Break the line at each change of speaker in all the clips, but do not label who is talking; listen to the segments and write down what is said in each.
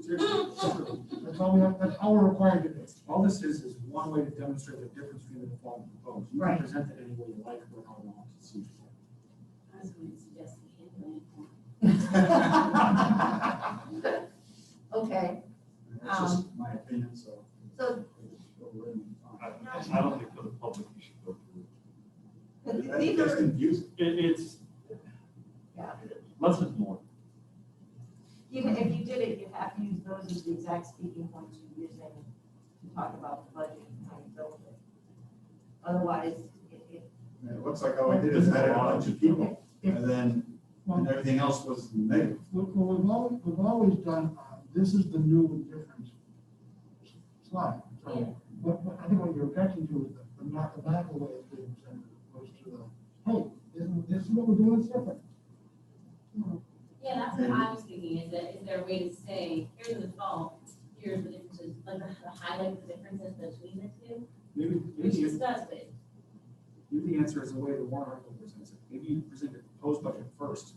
Seriously, separately. That's all we have, that's all we're required to do. All this is, is one way to demonstrate the difference between the default and proposed. You
Right.
can present it any way you like, or how you want to see
I was going to suggest the handwriting.
it.
Okay,
That's just my opinion, so.
Um, so
I I don't think for the public you should go through.
but these
That's
are,
confusing.
it. It, it's.
Yeah.
Less is more.
even if you did it, you have to use those as the exact speaking points you're using to talk about the budget and how you build it. Otherwise, it, it,
And It looks like all I did is added a bunch of people, and then, and everything else was negative.
What, what we've always, we've always done, uh, this is the new and different slide. So
Yeah.
What, what- I think what you're objecting to is the- the mathematical way of doing things, opposed to the, hey, isn't, this is what we're doing, it's different.
Yeah, that's what I was thinking, is that, is there a way to say, here's the default, here's the differences, like, to highlight the differences between the two?
Maybe,
Which
maybe,
is does, but
maybe the answer is the way the warrant article presents it. Maybe you present the proposed budget first.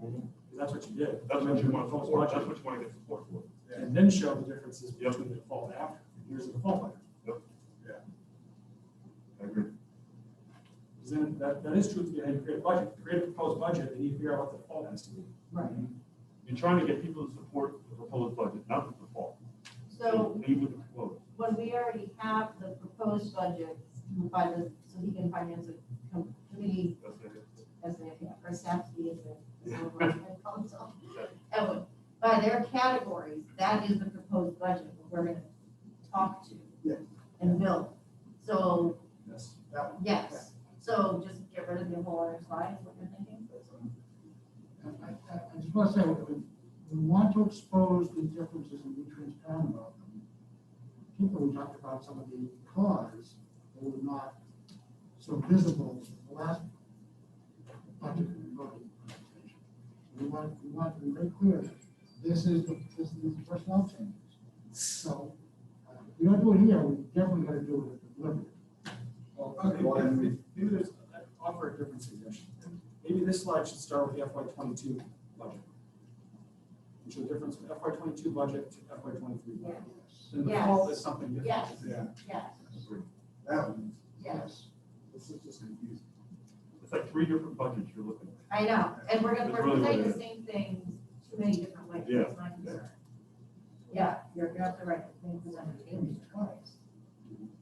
Because that's what you did.
That's what you want,
Proposed
support.
budget.
that's what you want to get support for.
and then show the differences
Yep.
between the default and after. Here's the default letter.
I agree.
Because then that, that is true to be how you create a budget. To Create a proposed budget, and you figure out what the default has to be.
right,
You're trying to get people to support the proposed budget, not the default.
so
Leave with the proposed.
when we already have the proposed budget by the, so he can finance a com- committee
That's the idea.
as a, or SAFC as a, as an overall council. And by their categories, that is the proposed budget that we're gonna talk to.
Yeah.
And build. So,
Yes, that one.
yes, so just get rid of the whole other slide, is what you're thinking?
And I, I, I just want to say, we, we want to expose the differences and be transparent about them. Particularly, we talked about some of the cause that were not so visible in the last budget and voting presentation. We want, we want to be very clear, that this is, the- this is the personnel changes. So, uh, if we don't do it here, we definitely gotta do it at the deliberate.
Well, okay, well, then we- maybe there's, I offer a different suggestion. Maybe this slide should start with the FY twenty-two budget. And show the difference from FY twenty-two budget to FY twenty-three budget. Then the
Yes.
default is something different.
Yes.
Yeah,
Yes,
that one,
yes,
this is just confusing.
It's like three different budgets you're looking at.
I know, and we're gonna,
That's
we're
really what
presenting
it
the same things too many different ways,
Yeah,
that's my concern. Yeah, you're, you're absolutely right, the thing presented changes twice.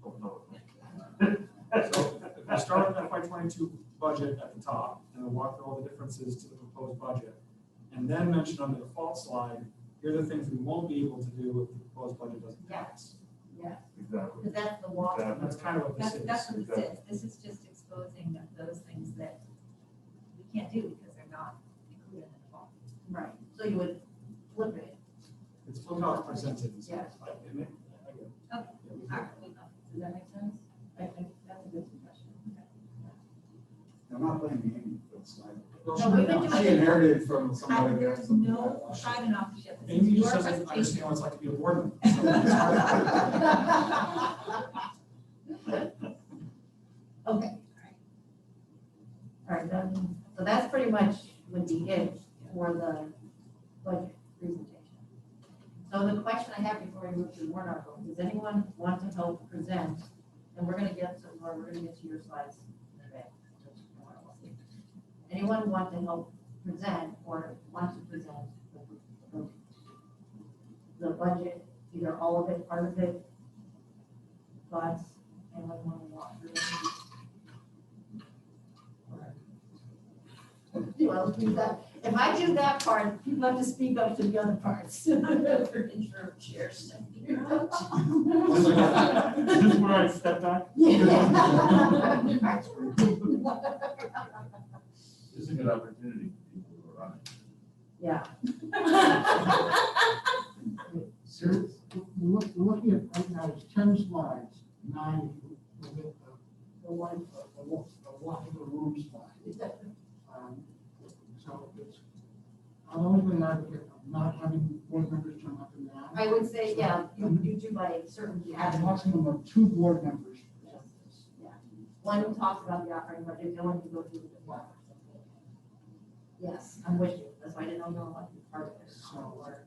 Don't know.
So if we start with FY twenty-two budget at the top, and then walk through all the differences to the proposed budget, and then mention on the default slide, here are the things we won't be able to do if the proposed budget doesn't pass.
Yes,
Exactly.
because that's the walk.
Exactly.
And that's kind of what this
That's,
is.
that's what this
Exactly.
is, this is just exposing that those things that we can't do because they're not included in the law.
Right, so you would flip it,
It's still how it's presented. is-
Yes.
I- I mean, I get it.
Okay.
Yeah, we
All
can-
right, we know.
does that make sense? I think that's a good suggestion.
I'm not blaming Amy for the slide.
Well,
No, we've been
she-
doing
She inherited it from
I-
somebody there.
There's no private enough.
Amy just doesn't understand what it's like to be a board member. so it's hard.
Okay. All right, then, so that's pretty much would be it for the budget presentation. So the question I have before we move to the warrant article, does anyone want to help present? And we're gonna get some more, we're gonna get to your slides in a bit. Anyone want to help present or want to present the- the budget, either all of it, part of it? Thoughts, anyone want to walk through? it? Well, do that, if I do that part, people have to speak up to the other parts. Freaking sure, cheers.
Is this where I step back?
Yeah.
This is a good opportunity for people who are on it.
Yeah.
Serious? We're look- we're looking at, right now, it's ten slides, nine with the, the one, the one, the one in the room slide. Um, So it's, I'm always been an advocate of not having board members turn up and down.
I would say, yeah, you, you do by certain,
You
you
have
add
a
one.
maximum of two board members. present this.
One who talks about the operating budget, no one can go through the department. Yes, I'm with you, that's why I didn't know what part of it, or